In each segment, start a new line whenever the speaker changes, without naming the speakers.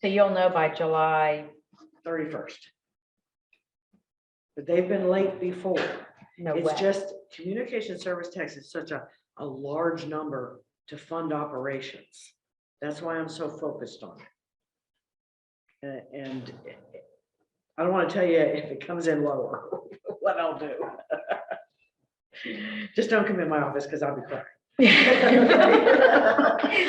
So you'll know by July,
thirty-first. But they've been late before.
no way.
It's just communication service tax is such a, a large number to fund operations. That's why I'm so focused on it. A- And I don't want to tell you if it comes in lower, what I'll do. Just don't come in my office because I'll be crying.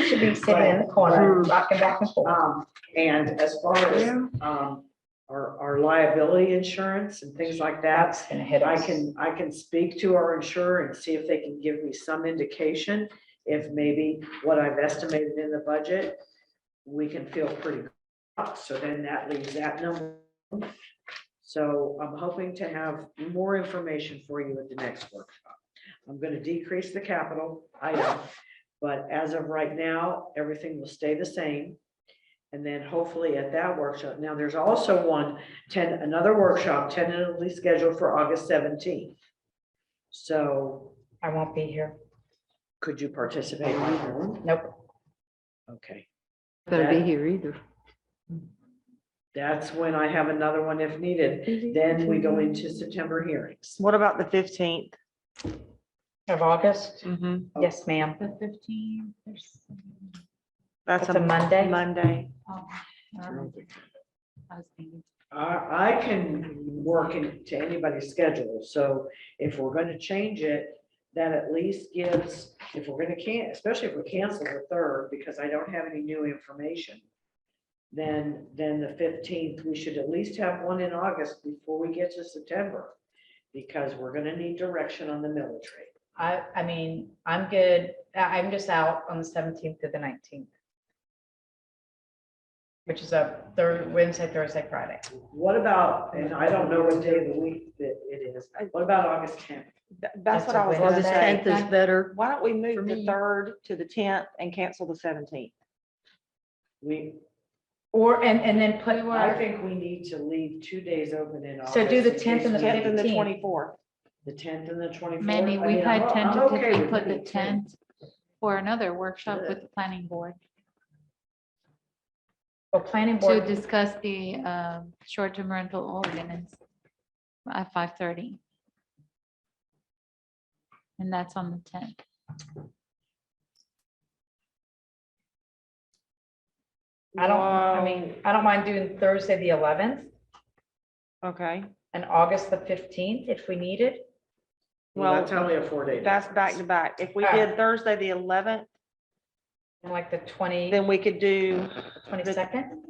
Should be sitting in the corner,
Right.
rocking back and forth.
Um, and as far as, um, our, our liability insurance and things like that,
That's gonna hit
I
us.
can, I can speak to our insurer and see if they can give me some indication if maybe what I've estimated in the budget, we can feel pretty good. So then that leaves that number. So I'm hoping to have more information for you at the next workshop. I'm gonna decrease the capital item, but as of right now, everything will stay the same. And then hopefully at that workshop, now there's also one ten, another workshop tentatively scheduled for August seventeenth. So
I won't be here.
could you participate on Zoom?
Nope.
Okay,
Better be
That-
here either.
that's when I have another one if needed. Then we go into September hearings.
What about the fifteenth?
Of August?
Mm-hmm.
That's
Oh.
Yes, ma'am.
The fifteenth, there's.
That's a Monday?
Monday.
um, um, I was thinking,
I, I can work into anybody's schedule, so if we're gonna change it, that at least gives, if we're gonna can, especially if we cancel the third, because I don't have any new information. Then, then the fifteenth, we should at least have one in August before we get to September, because we're gonna need direction on the military.
I, I mean, I'm good. I- I'm just out on the seventeenth to the nineteenth. Which is a Thursday, Wednesday, Thursday, Friday.
What about, and I don't know what day of the week that it is, what about August tenth?
That's
That's what I
a
was
Wednesday.
gonna
August
say.
tenth is better.
Why don't we
For
move the
me.
third to the tenth and cancel the seventeenth?
We,
Or, and, and then put,
I think we need to leave two days open in August.
So do the
in
10th and
case
the
we-
Tenth and the
15th.
twenty-fourth.
The tenth and the twenty-fourth.
Maybe we had tentatively put the tenth for another workshop with the planning board
or planning
to
board,
discuss the um, short-term rental ordinance at five thirty. And that's on the tenth.
I don't, I mean, I don't mind doing Thursday, the eleventh
Okay,
and August the fifteenth if we need it.
Well, that's
Well,
only a four-day.
that's back to back. If we
Ah.
did Thursday, the eleventh,
And like the twenty,
then we could do,
twenty-second,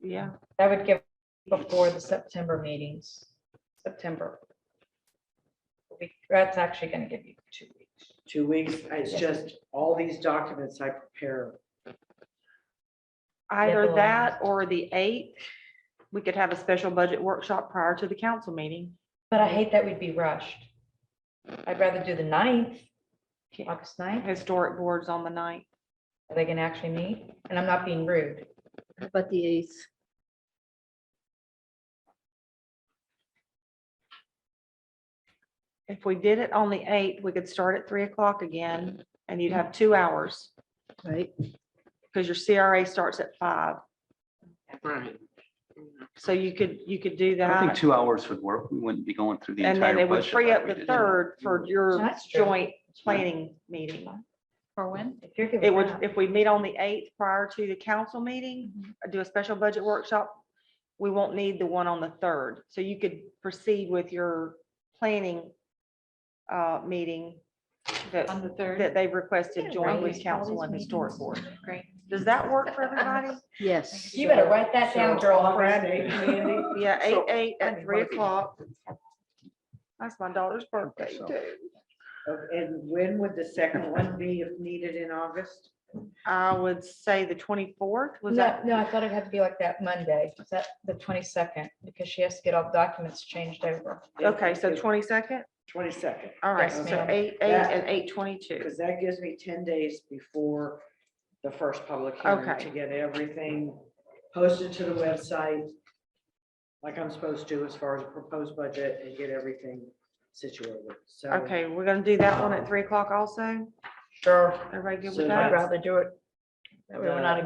yeah,
that would give before the September meetings, September. We- That's actually gonna give you two weeks.
Two weeks, it's just all these documents I prepare.
either
Definitely.
that or the eighth. We could have a special budget workshop prior to the council meeting.
But I hate that we'd be rushed. I'd rather do the ninth,
Okay.
August ninth,
Historic boards on the ninth.
are they gonna actually meet? And I'm not being rude.
But the eighth,
If we did it on the eighth, we could start at three o'clock again and you'd have two hours.
right?
because your CRA starts at five.
Right.
So you could, you could do
I think
that.
two hours would work. We wouldn't be going through the
And
entire
then it would
budget.
free
like
up
we did
the
in-
third for your
That's true.
joint planning meeting.
For when?
If you're good
It
with
would,
that.
if we meet on the eighth prior to the council meeting,
Mm-hmm.
do a special budget workshop, we won't need the one on the third. So you could proceed with your planning uh, meeting that,
On the third?
that they've requested joint
right.
with council and historic board.
Great.
Does that work for everybody?
Yes.
You better write that down, girl.
Yeah, eight,
So-
eight
I
at
mean,
three
what if you-
o'clock. That's my daughter's birthday
so-
too.
And when would the second one be if needed in August?
I would say the twenty-fourth, was
No,
that?
no, I thought it had to be like that Monday, is that the twenty-second, because she has to get all the documents changed over.
Okay, so twenty-second,
Twenty-second,
all right,
Yes,
so
ma'am.
eight, eight
That-
and eight twenty-two.
because that gives me ten days before the first public hearing
Okay.
to get everything posted to the website like I'm supposed to as far as a proposed budget and get everything situated, so.
Okay, we're gonna do that one at three o'clock also,
Sure,
everybody good
So
with
I'd
that?
rather do it. That way we're not